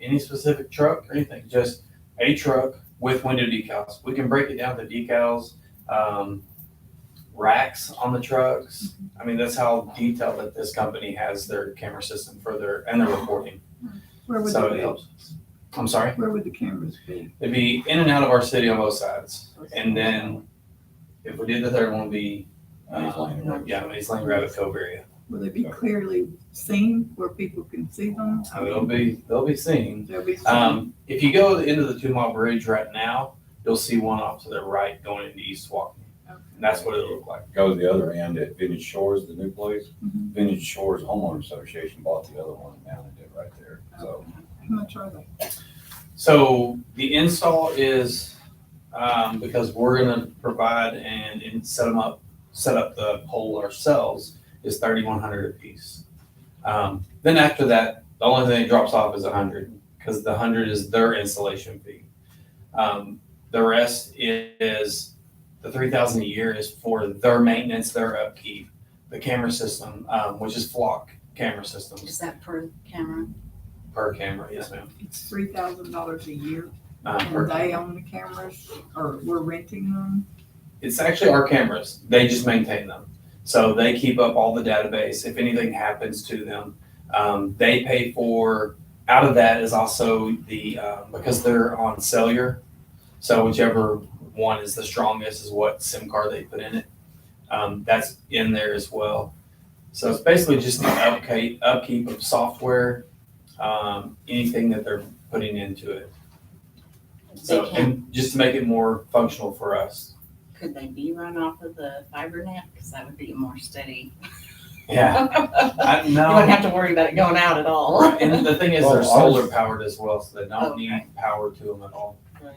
any specific truck or anything, just a truck with window decals. We can break it down to decals, um, racks on the trucks. I mean, that's how detailed that this company has their camera system for their, and their reporting, Where would, so it the- helps. I'm sorry, where would the cameras be? it'd be in and out of our city on both sides. And then if we did the third one, it'd be, Maze Lane and um, Rabbit. yeah, Maze Lane Rabbit Cove area. Will they be clearly seen where people can see them? So it'll be, they'll be seen. They'll be seen. Um, if you go to the end of the two mile bridge right now, you'll see one off to the right going into East Walk. And that's what it'll look like. Go to the other end at Vintage Shores, the new place. Mm-hmm. Mhm. Vintage Shores Homeowner Association bought the other one and mounted it right there. So How much are they? So the install is, um, because we're gonna provide and, and set them up, set up the pole ourselves, is thirty-one hundred apiece. Um, then after that, the only thing that drops off is a hundred, because the hundred is their installation fee. Um, the rest is, the three thousand a year is for their maintenance, their upkeep, the camera system, um, which is flock camera systems Is that per camera? per camera, yes ma'am. It's three thousand dollars a year Uh, per and they own the cameras or we're renting them? It's actually our cameras. They just maintain them. So they keep up all the database. If anything happens to them, um, they pay for, out of that is also the, uh, because they're on cellular. So whichever one is the strongest is what SIM card they put in it. Um, that's in there as well. So it's basically just the upkeep, upkeep of software, um, anything that they're putting into it. They So, can, and just to make it more functional for us. could they be run off of the fiber net? Because that would be more steady. Yeah, I, You wouldn't no. have to worry about it going out at all. And the thing is, Well, they're ours- solar powered as well, so they Okay. don't need power to them at all.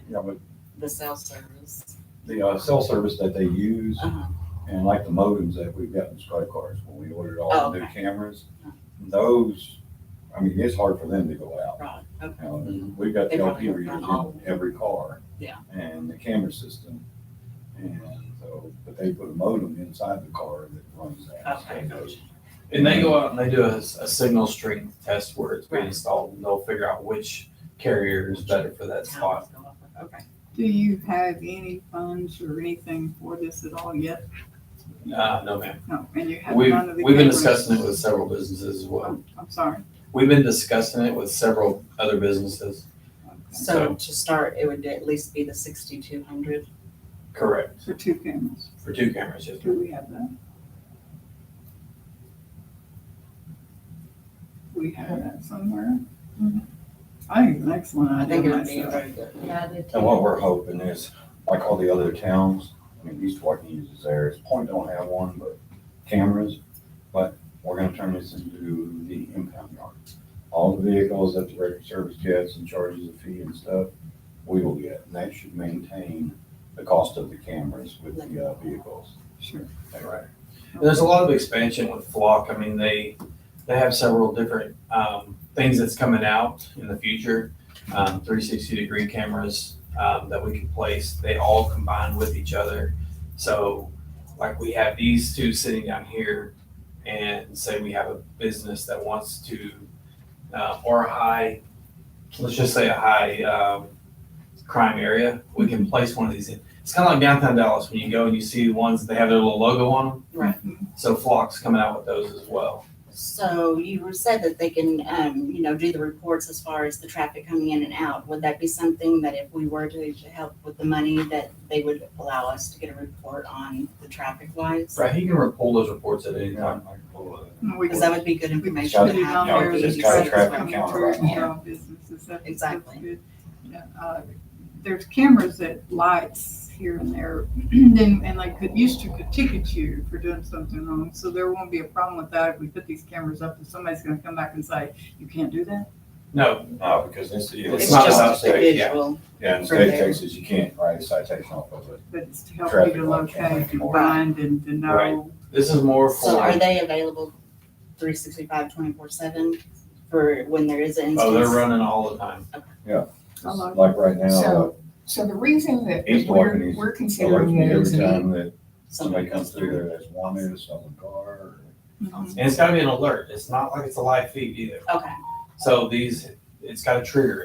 yeah, but The cell service. the uh, cell service that they use Uh-huh. and like the modems that we've got in Sky Cars when we ordered all the new Oh, Okay. cameras, those, I mean, it's hard for them to go out. Right, okay. You Mm-hmm. know, We've got the They LP probably don't readers run all. in every car. Yeah. And the camera system. And so, but they put a modem inside the car that runs that. Okay, So gotcha. And they go out and they do a, s- a signal strength test where it's being Right. installed, and they'll figure out which carrier is better for that spot. Towers go off of- Okay. Do you have any funds or anything for this at all yet? Uh, no, ma'am. No, and you have We've, none of the cameras? we've been discussing it with several businesses as well. Oh, I'm sorry. We've been discussing it with several other businesses. Okay. So to start, it would at least be the sixty-two hundred. Correct, So two cameras. for two cameras, yes. Do we have that? We have that somewhere. I think the next one I I think did it would be a myself. very good. And what we're hoping is, like all the other towns, I mean, East Waukegan uses theirs, Point don't have one, but cameras. But we're gonna turn this into the impound yard. All the vehicles that the record service gets and charges a fee and stuff, we will get. And that should maintain the cost of the cameras with the uh, vehicles. Sure. Right. And there's a lot of expansion with Flock. I mean, they, they have several different, um, things that's coming out in the future. Um, three sixty degree cameras, um, that we can place. They all combine with each other. So like we have these two sitting down here and say we have a business that wants to, uh, or a high, let's just say a high, um, crime area, we can place one of these in. It's kind of like downtown Dallas when you go and you see the ones, they have their little logo on them. So Flock's coming out with those as well. So you were said that they can, um, you know, do the reports as far as the traffic coming in and out. Would that be something that if we were to, to help with the money, that they would allow us to get a report on the traffic wise? Right, he can re- pull those reports at any Yeah, time. I can pull it. And we Because that would be good information put to it on have. Yeah, there there. because that it's you got a said it's traffic coming count through right and now. all businesses, that- that's Exactly. good. Yeah, uh, There's cameras that lights here and there, then, and like, could, used to could ticket you for doing something wrong, so there won't be a problem with that if we put these cameras up, and somebody's gonna come back and say, you can't do that? No, No, because It's this, It's it's not not about just state. the state, yeah. visual. Yeah, in for state there. cases, you can't write a citation off of it. But it's to help you Traffic to light camera. locate and find and to Right. know. this is more So for, are they available 365, 24 seven for when there is an oh, they're instance? running all the time. I love Like right now, uh, So, so the reason that East Walker we're, is we're alerts considering me it every is an, time that Something somebody goes comes through there that's wanted, selling a car, or Mhm. And it's gotta be an alert. It's not like it's a live feed either. Okay. So these, it's got a trigger